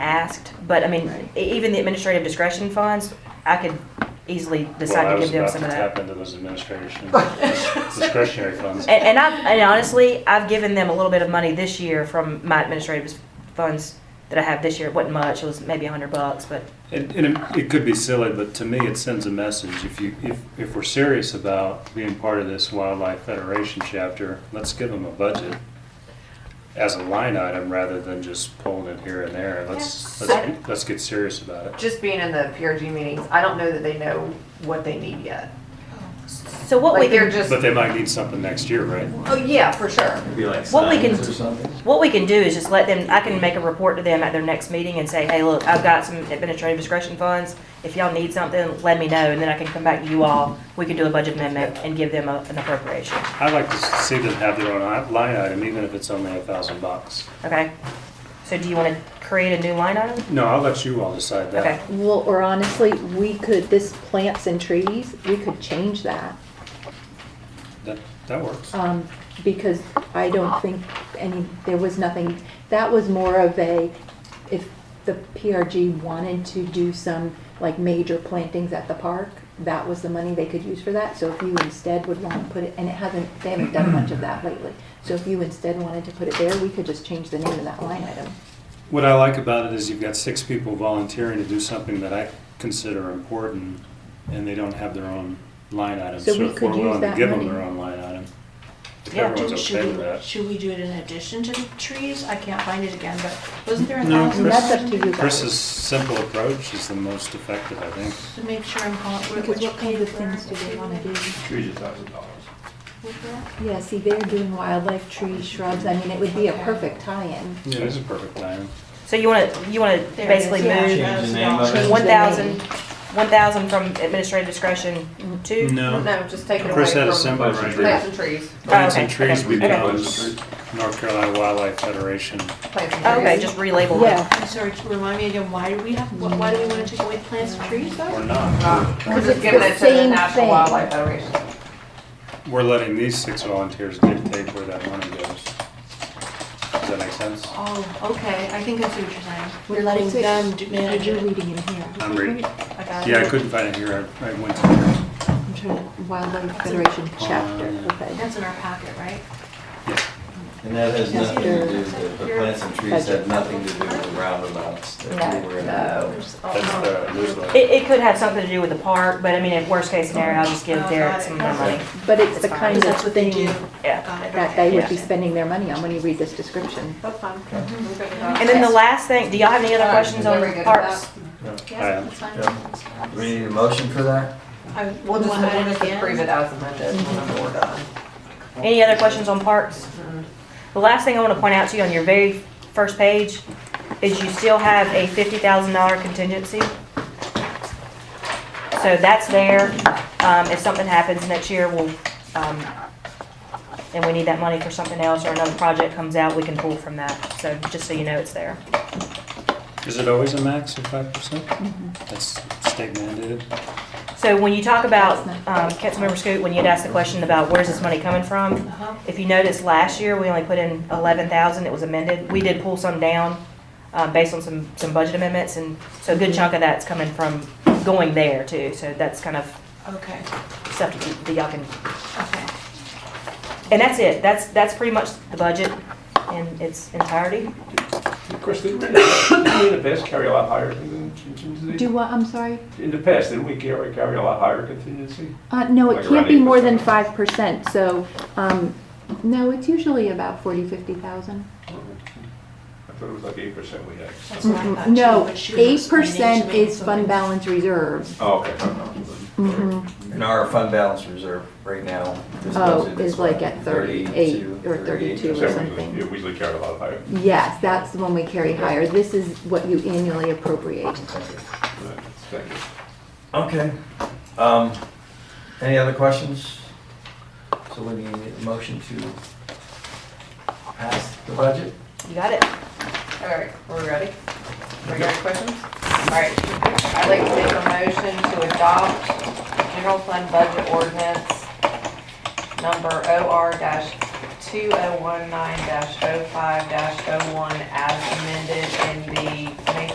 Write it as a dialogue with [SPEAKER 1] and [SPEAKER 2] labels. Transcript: [SPEAKER 1] asked, but I mean,
[SPEAKER 2] Right.
[SPEAKER 1] e- even the administrative discretion funds, I could easily decide to give them some of
[SPEAKER 3] Well, I was
[SPEAKER 1] that.
[SPEAKER 3] about to tap into those administration discretionary funds.
[SPEAKER 1] And, and I, and honestly, I've given them a little bit of money this year from my administrative funds that I have this year. It wasn't much, it was maybe a hundred bucks, but
[SPEAKER 3] And, and it- it could be silly, but to me, it sends a message. If you, if, if we're serious about being part of this Wildlife Federation chapter, let's give them a budget as a line item rather than just pulling it here and there. Let's,
[SPEAKER 2] Yeah.
[SPEAKER 3] let's, let's get serious about it.
[SPEAKER 2] Just being in the PRG meetings, I don't know that they know what they need yet.
[SPEAKER 1] So what we
[SPEAKER 2] Like, they're
[SPEAKER 1] can,
[SPEAKER 2] just,
[SPEAKER 3] But they might need something next year, right?
[SPEAKER 2] oh, yeah, for sure.
[SPEAKER 4] Be like
[SPEAKER 1] What we can-
[SPEAKER 4] signs or something.
[SPEAKER 1] what we can do is just let them, I can make a report to them at their next meeting and say, hey, look, I've got some administrative discretion funds. If y'all need something, let me know, and then I can come back to you all. We can do a budget amendment and give them a- an appropriation,
[SPEAKER 3] I like to see them have their own i- line item, even if it's only a thousand bucks.
[SPEAKER 1] okay? So do you want to create a new line item?
[SPEAKER 3] No, I'll let you all decide
[SPEAKER 1] Okay.
[SPEAKER 3] that.
[SPEAKER 5] Well, or honestly, we could, this plants and trees, we could change that,
[SPEAKER 3] That, that works.
[SPEAKER 5] um, because I don't think any, there was nothing, that was more of a, if the PRG wanted to do some, like, major plantings at the park, that was the money they could use for that, so if you instead would wanna put it, and it hasn't, they haven't done much of that lately, so if you instead wanted to put it there, we could just change the name of that line item.
[SPEAKER 3] What I like about it is you've got six people volunteering to do something that I consider important, and they don't have their own line item.
[SPEAKER 5] So we
[SPEAKER 3] if we're
[SPEAKER 5] could use
[SPEAKER 3] willing to
[SPEAKER 5] that
[SPEAKER 3] give them
[SPEAKER 5] money.
[SPEAKER 3] their own line item, if
[SPEAKER 1] Yeah,
[SPEAKER 3] everyone's
[SPEAKER 6] Do-
[SPEAKER 3] okay
[SPEAKER 6] Should
[SPEAKER 3] with
[SPEAKER 6] we,
[SPEAKER 3] that.
[SPEAKER 6] should we do it in addition to the trees? I can't find it again, but wasn't there a
[SPEAKER 3] No,
[SPEAKER 6] thousand?
[SPEAKER 3] Chris-
[SPEAKER 5] That's up to you.
[SPEAKER 3] Chris's simple approach is the most effective, I think.
[SPEAKER 6] To make sure I'm calling. where-
[SPEAKER 5] Because
[SPEAKER 6] which
[SPEAKER 5] what kind of
[SPEAKER 6] page
[SPEAKER 5] things do
[SPEAKER 6] we're
[SPEAKER 5] they
[SPEAKER 6] at?
[SPEAKER 5] wanna do?
[SPEAKER 4] Trees a thousand dollars.
[SPEAKER 6] What page
[SPEAKER 5] Yeah, see, they're doing wildlife, trees, shrubs, I mean, it would be a perfect tie-in.
[SPEAKER 3] Yeah, it's a perfect line.
[SPEAKER 1] So you want to, you want to
[SPEAKER 6] There it is,
[SPEAKER 1] basically
[SPEAKER 6] yeah.
[SPEAKER 1] move
[SPEAKER 4] Change the name of
[SPEAKER 5] Change
[SPEAKER 4] it.
[SPEAKER 5] the
[SPEAKER 1] one thousand,
[SPEAKER 5] name.
[SPEAKER 1] one thousand from administrative discretion to?
[SPEAKER 2] No, just take it away
[SPEAKER 3] Chris had a
[SPEAKER 2] from
[SPEAKER 3] symbol right
[SPEAKER 2] plants
[SPEAKER 3] there.
[SPEAKER 2] and trees,
[SPEAKER 3] Plants
[SPEAKER 1] okay,
[SPEAKER 3] and trees
[SPEAKER 1] okay, okay.
[SPEAKER 3] becomes North Carolina Wildlife Federation.
[SPEAKER 2] plants and trees.
[SPEAKER 1] Okay, just relabel it.
[SPEAKER 5] Yeah,
[SPEAKER 6] I'm sorry, to remind me again, why do we have, wh- why do we want to take away plants and trees
[SPEAKER 3] We're
[SPEAKER 6] though?
[SPEAKER 3] not.
[SPEAKER 2] Uh, We're
[SPEAKER 5] Because
[SPEAKER 2] just
[SPEAKER 5] it's
[SPEAKER 2] giving
[SPEAKER 5] the
[SPEAKER 2] it to the
[SPEAKER 5] same
[SPEAKER 2] National
[SPEAKER 5] thing.
[SPEAKER 2] Wildlife Federation.
[SPEAKER 3] We're letting these six volunteers dictate where that money goes. Does that make sense?
[SPEAKER 6] Oh, okay, I think I see what you're saying. We're
[SPEAKER 5] What's
[SPEAKER 6] letting
[SPEAKER 5] it?
[SPEAKER 6] them do- manage
[SPEAKER 5] you're
[SPEAKER 6] it.
[SPEAKER 5] reading it here.
[SPEAKER 3] I'm reading.
[SPEAKER 6] I got
[SPEAKER 3] Yeah, I
[SPEAKER 6] it.
[SPEAKER 3] couldn't find it here. I I went to,
[SPEAKER 5] I'm trying to, Wildlife Federation chapter,
[SPEAKER 3] yeah.
[SPEAKER 5] okay.
[SPEAKER 6] That's in our packet, right?
[SPEAKER 3] yes.
[SPEAKER 4] And that has nothing to do,
[SPEAKER 6] Yes,
[SPEAKER 4] with the
[SPEAKER 6] you're-
[SPEAKER 4] plants and trees have nothing to do with the roundabouts that we were in.
[SPEAKER 2] No, no.
[SPEAKER 3] That's the newsletter.
[SPEAKER 1] It, it could have something to do with the park, but I mean, in worst case scenario, I'll just give Derek some more money.
[SPEAKER 5] But it's the
[SPEAKER 1] That's
[SPEAKER 5] kind
[SPEAKER 1] fine.
[SPEAKER 5] of
[SPEAKER 6] That's what they
[SPEAKER 5] thing
[SPEAKER 6] do.
[SPEAKER 1] Yeah.
[SPEAKER 6] Got it,
[SPEAKER 5] that
[SPEAKER 6] okay.
[SPEAKER 5] they would be
[SPEAKER 1] Yeah.
[SPEAKER 5] spending their money on when you read this description.
[SPEAKER 2] That's fine. We're good with
[SPEAKER 1] And then the
[SPEAKER 2] that.
[SPEAKER 1] last thing, do y'all have any other
[SPEAKER 2] Uh,
[SPEAKER 1] questions
[SPEAKER 2] are
[SPEAKER 1] on
[SPEAKER 2] we good with
[SPEAKER 1] parks?
[SPEAKER 2] that?
[SPEAKER 3] Yeah.
[SPEAKER 6] Yes, that's fine.
[SPEAKER 4] Yeah. Do we need a motion for that?
[SPEAKER 6] I-
[SPEAKER 2] We'll just,
[SPEAKER 6] wanna
[SPEAKER 2] we'll
[SPEAKER 6] add
[SPEAKER 2] just
[SPEAKER 6] again?
[SPEAKER 2] approve it as amended whenever we're done.
[SPEAKER 1] Any other questions on parks? The last thing I want to point out to you on your very first page is you still have a fifty thousand dollar contingency. So that's there. Um, if something happens next year, we'll, um, and we need that money for something else or another project comes out, we can pull from that. So just so you know, it's there.
[SPEAKER 3] Is it always a max of five percent? That's state mandated.
[SPEAKER 1] So when you talk about,
[SPEAKER 5] That's
[SPEAKER 1] um, Councilmember Scoot, when you'd asked the question about where's this money coming from,
[SPEAKER 6] Uh-huh.
[SPEAKER 1] if you notice last year, we only put in eleven thousand, it was amended. We did pull some down, um, based on some, some budget amendments, and so a good chunk of that's coming from going there too. So that's kind of
[SPEAKER 6] Okay,
[SPEAKER 1] stuff to keep- that y'all can,
[SPEAKER 6] okay.
[SPEAKER 1] and that's it. That's, that's pretty much the budget in its entirety.
[SPEAKER 7] Of course, didn't we didn't we in the past carry a lot higher con-
[SPEAKER 5] Do
[SPEAKER 7] contingency?
[SPEAKER 5] what, I'm sorry?
[SPEAKER 7] In the past, didn't we carry, carry a lot higher contingency?
[SPEAKER 5] Uh, no,
[SPEAKER 7] Like
[SPEAKER 5] it can't be
[SPEAKER 7] around
[SPEAKER 5] more than
[SPEAKER 7] 8%.
[SPEAKER 5] five percent, so, um, no, it's usually about forty, fifty thousand.
[SPEAKER 7] I thought it was like eight percent we had.
[SPEAKER 6] That's what I thought too,
[SPEAKER 5] No,
[SPEAKER 6] but she was
[SPEAKER 5] eight
[SPEAKER 6] explaining
[SPEAKER 5] percent
[SPEAKER 6] to me
[SPEAKER 5] is fund
[SPEAKER 6] something.
[SPEAKER 5] balance reserve.
[SPEAKER 7] Oh, okay. no, no.
[SPEAKER 5] Mhm.
[SPEAKER 4] And our fund balance reserve right now. this
[SPEAKER 5] Oh,
[SPEAKER 4] budget
[SPEAKER 5] is like at 38 or 32
[SPEAKER 7] So
[SPEAKER 5] or
[SPEAKER 7] we-
[SPEAKER 5] something.
[SPEAKER 7] yeah, We usually carry a lot higher.
[SPEAKER 5] Yes, that's the one we carry higher. This is what you annually appropriate.
[SPEAKER 7] Right, Thank you.
[SPEAKER 4] Okay. Um, any other questions? So we need a motion to pass the budget?
[SPEAKER 1] You got it?
[SPEAKER 2] All right, we're ready? We got questions? All right, I'd like to make a motion to adopt general fund budget ordinance number OR two oh one nine 5 one as amended in the May